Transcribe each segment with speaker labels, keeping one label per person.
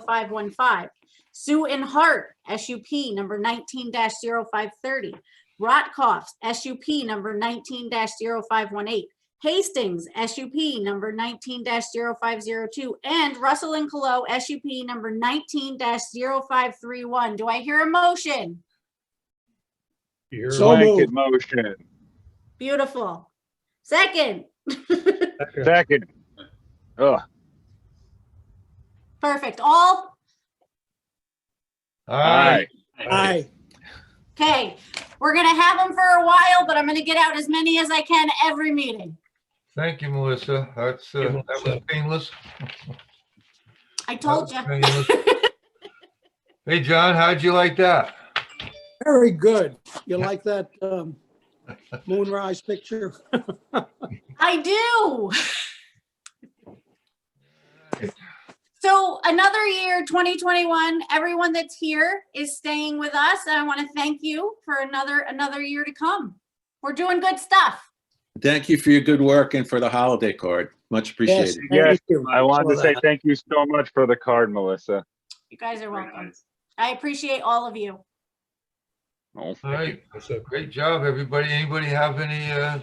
Speaker 1: 515 Sue and Hart, SUP number 19-0530, Rotkoff, SUP number 19-0518, Hastings, SUP number 19-0502, and Russell and Colo, SUP number 19-0531. Do I hear a motion?
Speaker 2: You're
Speaker 3: So
Speaker 2: right.
Speaker 3: moved.
Speaker 4: Blanket motion,
Speaker 1: Beautiful. Second,
Speaker 2: Second.
Speaker 4: second. Ugh,
Speaker 1: perfect. All
Speaker 4: aye,
Speaker 3: Aye.
Speaker 1: Okay, we're gonna have them for a while, but I'm gonna get out as many as I can every meeting.
Speaker 5: Thank you, Melissa. That's, uh,
Speaker 2: Thank you,
Speaker 5: that was
Speaker 2: Melissa.
Speaker 5: painless.
Speaker 1: I told you.
Speaker 5: That was painless. Hey, John, how'd you like that?
Speaker 3: Very good. You like that um, moonrise picture?
Speaker 1: I do. So another year, 2021, everyone that's here is staying with us. And I want to thank you for another, another year to come. We're doing good stuff.
Speaker 6: Thank you for your good work and for the holiday card. Much
Speaker 3: Yes,
Speaker 6: appreciated.
Speaker 3: thank you.
Speaker 4: I wanted to
Speaker 3: Saw
Speaker 4: say
Speaker 3: that.
Speaker 4: thank you so much for the card, Melissa.
Speaker 1: You guys are welcome. I appreciate all of you.
Speaker 4: Oh,
Speaker 5: All right,
Speaker 2: That's it.
Speaker 5: great job, everybody. Anybody have any, uh, uh,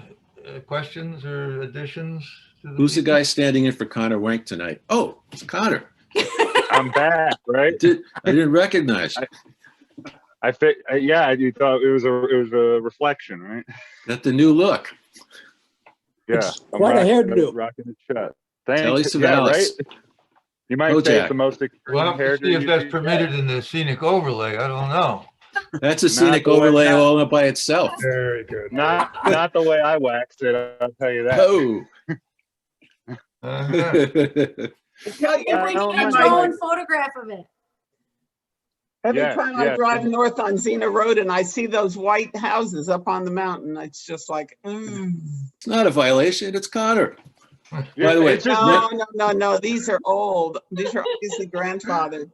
Speaker 5: questions or additions? to
Speaker 6: Who's the
Speaker 5: meeting?
Speaker 6: guy standing in for Connor Wank tonight? Oh, it's Connor.
Speaker 4: I'm back,
Speaker 6: I
Speaker 4: right?
Speaker 6: did I didn't recognize. you.
Speaker 4: I fit, uh, yeah, you thought it was a, it was a reflection, right?
Speaker 6: Got the new look.
Speaker 4: Yeah. I'm
Speaker 3: Quite a
Speaker 4: rocking-
Speaker 3: hairdo.
Speaker 4: Rocking the shut.
Speaker 6: Telly
Speaker 4: Thanks, yeah,
Speaker 6: Savalas.
Speaker 4: right? You might say
Speaker 6: Bojack.
Speaker 4: it's the most extreme
Speaker 5: We'll have to
Speaker 4: hairdo.
Speaker 5: see if
Speaker 4: you
Speaker 5: that's
Speaker 4: do.
Speaker 5: permitted in the scenic overlay. I don't know.
Speaker 6: That's a scenic
Speaker 4: the way
Speaker 6: overlay
Speaker 4: that-
Speaker 6: all by itself.
Speaker 2: Very good.
Speaker 4: Not, not the way I waxed it, I'll tell you that.
Speaker 6: Oh.
Speaker 5: Uh-huh.
Speaker 6: That's
Speaker 7: Tell you,
Speaker 1: Every
Speaker 7: every
Speaker 4: don't
Speaker 1: get
Speaker 7: time
Speaker 4: mind.
Speaker 1: your
Speaker 7: I,
Speaker 1: own photograph of it.
Speaker 7: every
Speaker 4: Yeah,
Speaker 7: time
Speaker 4: yeah.
Speaker 7: I drive north on Xena Road and I see those white houses up on the mountain, it's just like, mm.
Speaker 6: not a violation. It's Connor.
Speaker 4: Yeah,
Speaker 6: By the way,
Speaker 4: it's just-
Speaker 7: no, no, no, no, these are old. These are obviously grandfathered.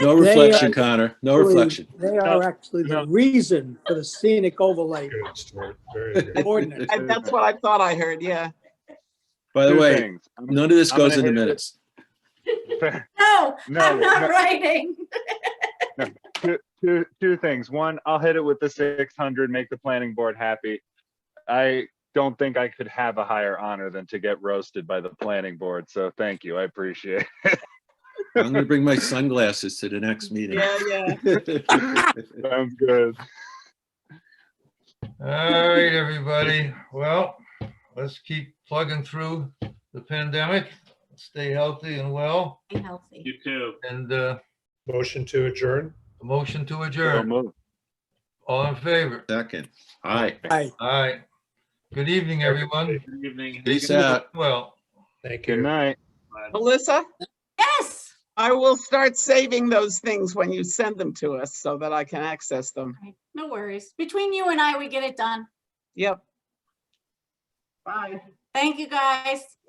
Speaker 6: No
Speaker 3: They, uh,
Speaker 6: reflection, Connor. No reflection.
Speaker 3: They are actually the reason for the scenic overlay
Speaker 2: Good, Stuart. Very good.
Speaker 3: ordinance.
Speaker 7: And that's what I thought I heard, yeah.
Speaker 6: By the
Speaker 4: two
Speaker 6: way,
Speaker 4: things. I'm-
Speaker 6: none of this
Speaker 4: I'm gonna
Speaker 6: goes in the
Speaker 4: hit it.
Speaker 6: minutes.
Speaker 1: No,
Speaker 4: No,
Speaker 1: I'm
Speaker 4: no.
Speaker 1: not writing.
Speaker 4: two, two, two things. One, I'll hit it with the 600, make the planning board happy. I don't think I could have a higher honor than to get roasted by the planning board. So thank you. I appreciate it.
Speaker 6: I'm going to bring my sunglasses to the next meeting.
Speaker 7: Yeah, yeah.
Speaker 4: Sounds good.
Speaker 5: All right, everybody. Well, let's keep plugging through the pandemic. Stay healthy and well,
Speaker 1: Be healthy.
Speaker 5: and, uh,
Speaker 2: Motion to adjourn.
Speaker 5: a motion to
Speaker 4: So
Speaker 5: adjourn.
Speaker 4: moved.
Speaker 5: All in favor?
Speaker 6: Second. Hi.
Speaker 3: Aye.
Speaker 5: All right. Good evening, everyone.
Speaker 6: Peace out.
Speaker 5: Well.
Speaker 2: Thank
Speaker 4: Good
Speaker 2: you.
Speaker 4: night.
Speaker 7: Melissa,
Speaker 1: Yes,
Speaker 7: I will start saving those things when you send them to us so that I can access them.
Speaker 1: Right, no worries. Between you and I, we get it done.
Speaker 7: Yep. Bye.
Speaker 1: Thank you, guys.